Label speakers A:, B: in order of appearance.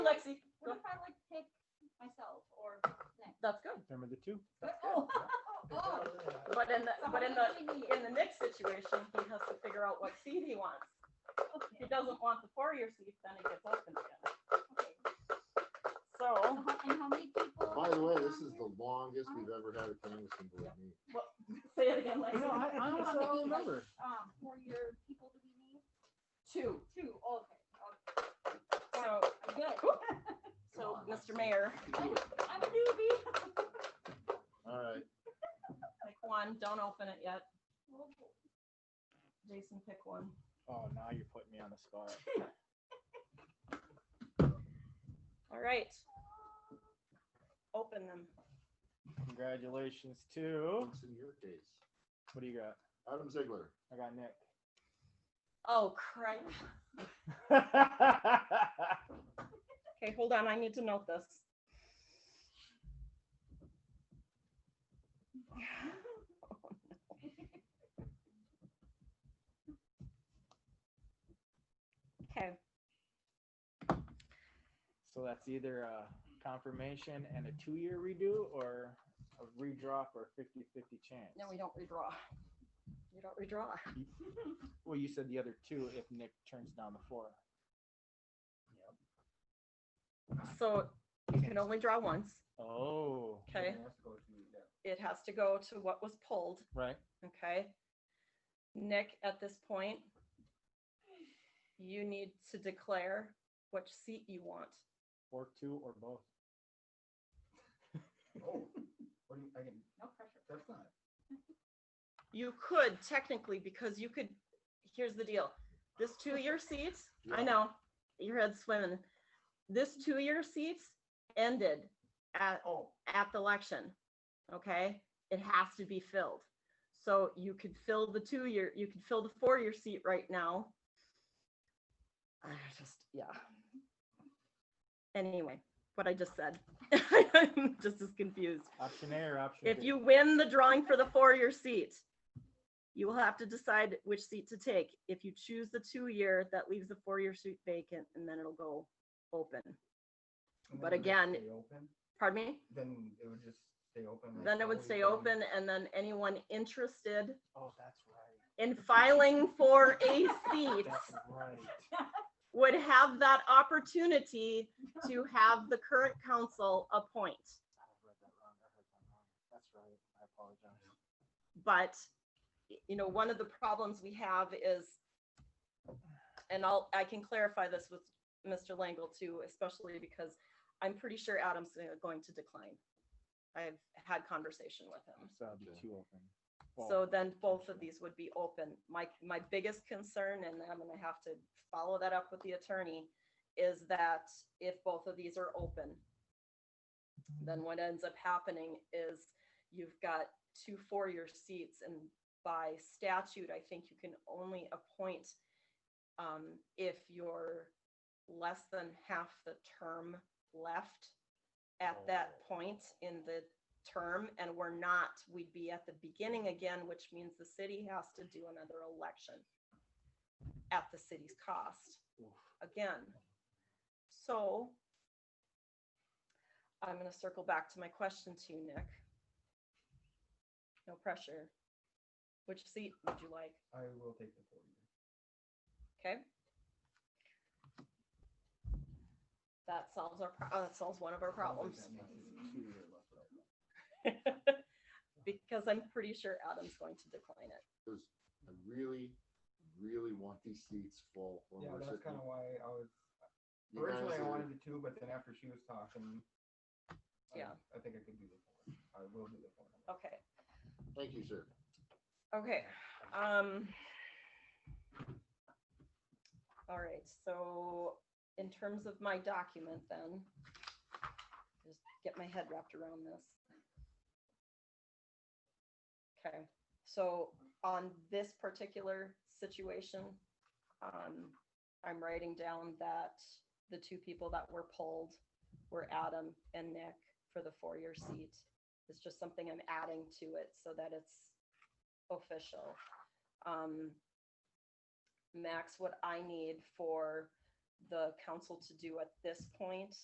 A: remember the two.
B: Oh, oh,
C: But in the,
B: so
C: but
B: how
C: in the,
B: many do we need?
C: in the Nick situation, he has to figure out what seed he wants. If he
B: Okay,
C: doesn't want the four-year seed, then it gets open again.
B: okay.
C: So,
B: So how- And how many people?
D: By the way, this is the longest we've ever had a canvassing board meeting.
C: say it again,
A: No,
C: Lexi.
A: I, I honestly don't remember.
B: Um, for your people do we need?
C: Two.
B: Two, okay, okay,
C: So,
B: good.
C: so, Mr. Mayor,
B: I'm a newbie.
D: All right,
C: pick one, don't open it yet.
B: Well,
C: Jason, pick one.
A: Oh, now you're putting me on the spot.
C: All right. Open them.
A: Congratulations to,
D: what's in your case?
A: what do you got?
D: Adam Ziegler.
A: I got Nick.
C: Oh, crap. Okay, hold on, I need to note this. Okay,
A: So that's either a confirmation and a two-year redo or a redraw for a 50-50 chance.
C: no, we don't redraw. We don't redraw.
A: Well, you said the other two if Nick turns down the floor.
C: So you can only draw once.
A: Oh,
C: Okay, it has to go to what was pulled.
A: right.
C: Okay. Nick, at this point, you need to declare which seat you want.
A: Or two or both.
E: Oh, what do you, I can,
B: No pressure.
E: that's not,
C: You could technically, because you could, here's the deal. This two-year seat, I
D: Yeah.
C: know, your head's swimming. This two-year seat ended at,
E: oh,
C: at the election, okay? It has to be filled. So you could fill the two-year, you could fill the four-year seat right now. I just, yeah. Anyway, what I just said. I'm just as confused.
A: Option A or option
C: If
A: B?
C: you win the drawing for the four-year seat, you will have to decide which seat to take. If you choose the two-year, that leaves the four-year seat vacant and then it'll go open.
E: and
C: But
E: then it would
C: again-
E: stay open?
C: Pardon me?
E: Then it would just stay open. like
C: Then it would
E: always
C: stay
E: been?
C: open and then anyone interested
A: Oh, that's right.
C: in filing for a seat
A: That's right.
C: would have that opportunity to have the current council appoint.
A: I read that wrong. I heard that wrong. That's right. I apologize.
C: But, y- you know, one of the problems we have is, and I'll, I can clarify this with Mr. Langle too, especially because I'm pretty sure Adam's gonna- going to decline. I've had conversation with him.
A: So that'd be
D: Okay.
A: two open.
C: So then both of these would be open. My, my biggest concern, and I'm gonna have to follow that up with the attorney, is that if both of these are open, then what ends up happening is you've got two four-year seats and by statute, I think you can only appoint um, if you're less than half the term left at that point in the term and we're not, we'd be at the beginning again, which means the city has to do another election at the city's cost again. So I'm going to circle back to my question to you, Nick. No pressure. Which seat would you like?
E: I will take the four year.
C: Okay. That solves our, pro- uh, that solves one of our problems.
E: That makes it two year left out.
C: Because I'm pretty sure Adam's going to decline it.
D: Because I really, really want these seats full. when
E: Yeah,
D: we're
E: that's
D: sitting-
E: kind of why I was,
D: you guys
E: originally I
D: are-
E: wanted the two, but then after she was talking. I-
C: Yeah.
E: I think I could do the four, I will do the four.
C: Okay,
D: Thank you, sir.
C: okay, um. All right, so in terms of my document then, just get my head wrapped around this. Okay, so on this particular situation, um, I'm writing down that the two people that were polled were Adam and Nick for the four-year seat. It's just something I'm adding to it so that it's official. Um, Max, what I need for the council to do at this point